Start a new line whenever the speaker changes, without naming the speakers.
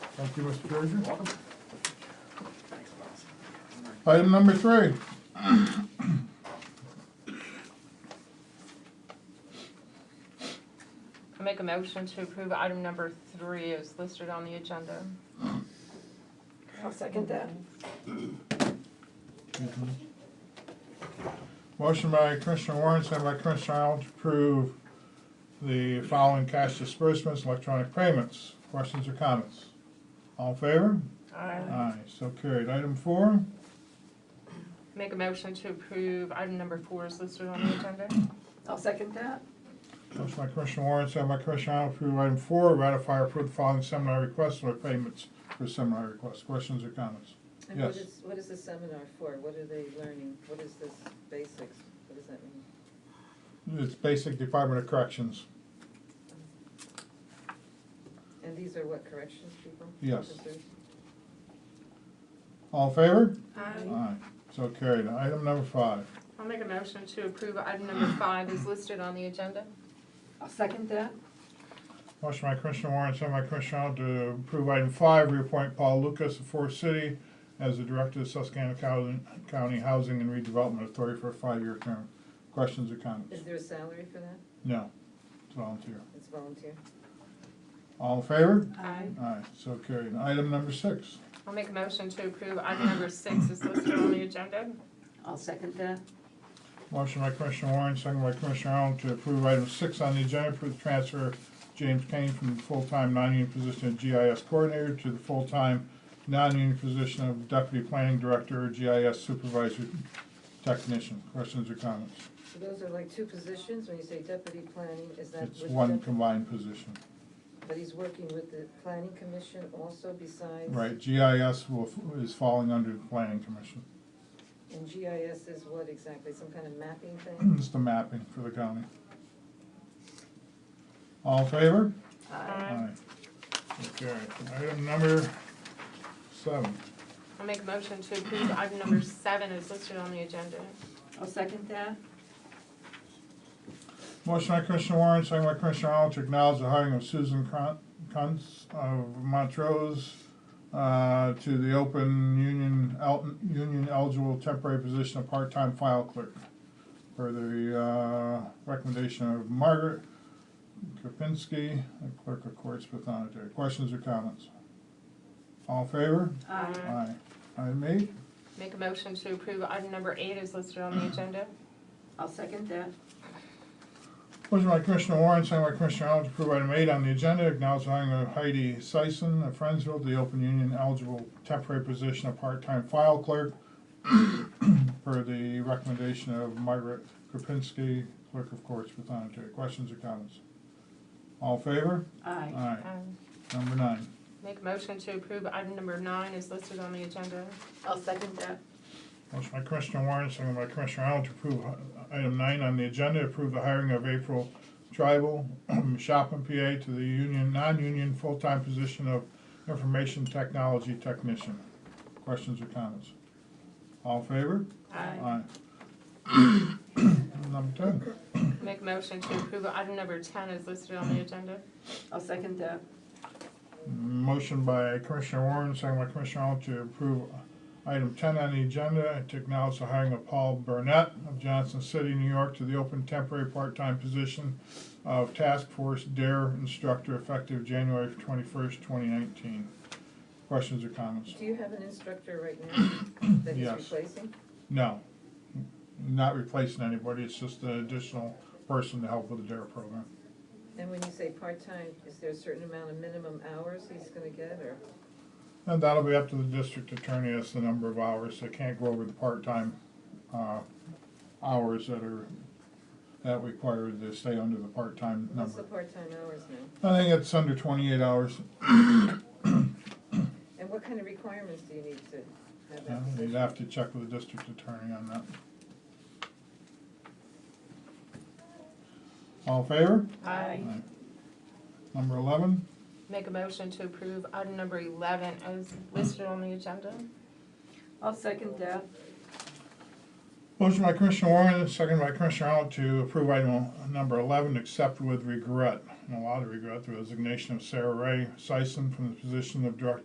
Thank you, Mr. Frazier. Item number three.
I make a motion to approve item number three is listed on the agenda.
I'll second that.
Motion by Commissioner Warren, second by Commissioner Arnold to approve the following cash disbursements, electronic payments. Questions or comments? All in favor?
I
Aye, so carried. Item four,
make a motion to approve item number four is listed on the agenda.
I'll second that.
motion by Commissioner Warren, second by Commissioner Arnold to approve item four, ratify or approve the following seminar requests or payments for seminar requests. Questions or comments?
And what
Yes.
is, what is the seminar for? What are they learning? What is this basics? What does that mean?
It's basic Department of Corrections.
And these are what, corrections people?
Yes.
Officers?
All in favor?
Aye.
Aye, so carried. Item number five.
I'll make a motion to approve item number five is listed on the agenda.
I'll second that.
Motion by Commissioner Warren, second by Commissioner Arnold to approve item five, reappoint Paul Lucas of Forest City as the Director of Susquehanna County County Housing and Redevelopment Authority for a five-year term. Questions or comments?
Is there a salary for that?
No, it's volunteer.
It's volunteer.
All in favor?
Aye.
Aye, so carried. Item number six.
I'll make a motion to approve item number six is listed on the agenda.
I'll second that.
Motion by Commissioner Warren, second by Commissioner Arnold to approve item six on the agenda, approve the transfer of James Kane from the full-time non-union position of GIS coordinator to the full-time non-union position of deputy planning director or GIS supervisor technician. Questions or comments?
So those are like two positions, when you say deputy planning, is that
It's
with
one
dep-
combined position,
But he's working with the planning commission also besides?
right? GIS will, is falling under the planning commission.
And GIS is what exactly? Some kind of mapping thing?
It's the mapping for the county. All in favor?
Aye.
Okay, item number seven.
I'll make a motion to approve item number seven is listed on the agenda.
I'll second that.
Motion by Commissioner Warren, second by Commissioner Arnold to acknowledge the hiring of Susan Cron- Kuntz of Montrose uh, to the open union, el- union eligible temporary position of part-time file clerk per the uh, recommendation of Margaret Kapinski, the clerk of courts with honor. Questions or comments? All in favor?
Aye.
Aye. Item eight.
Make a motion to approve item number eight is listed on the agenda.
I'll second that.
Motion by Commissioner Warren, second by Commissioner Arnold, to approve item eight on the agenda, acknowledging hiring of Heidi Sison of Friendsville, to the open union eligible temporary position of part-time file clerk per the recommendation of Margaret Kropinski, clerk of courts for Thonotary. Questions or comments? All in favor?
Aye.
Aye.
Aye.
Number nine.
Make a motion to approve item number nine is listed on the agenda.
I'll second that.
Motion by Commissioner Warren, second by Commissioner Arnold to approve uh, item nine on the agenda, approve the hiring of April Tribal, Shopin, PA, to the union, non-union, full-time position of information technology technician. Questions or comments? All in favor? Aye. Number ten.
Make a motion to approve item number ten is listed on the agenda.
I'll second that.
Motion by Commissioner Warren, second by Commissioner Arnold to approve item ten on the agenda, to acknowledge the hiring of Paul Burnett of Johnson City, New York, to the open temporary part-time position of Task Force Dare Instructor effective January twenty-first, twenty nineteen. Questions or comments?
Do you have an instructor right now that he's
Yes.
replacing?
No. Not replacing anybody, it's just an additional person to help with the Dare program.
And when you say part-time, is there a certain amount of minimum hours he's gonna get, or?
And that'll be up to the district attorney as the number of hours. They can't go over the part-time, uh, hours that are, that require to stay under the part-time
What's the
number.
part-time hours now?
I think it's under twenty-eight hours.
And what kind of requirements do you need to have
Uh,
that?
You'd
position?
have to check with the district attorney on that. All in favor?
Aye.
Number eleven?
Make a motion to approve item number eleven is listed on the agenda.
I'll second that.
Motion by Commissioner Warren, second by Commissioner Arnold to approve item number eleven, except with regret, and a lot of regret, the resignation of Sarah Ray Sison from the position of Director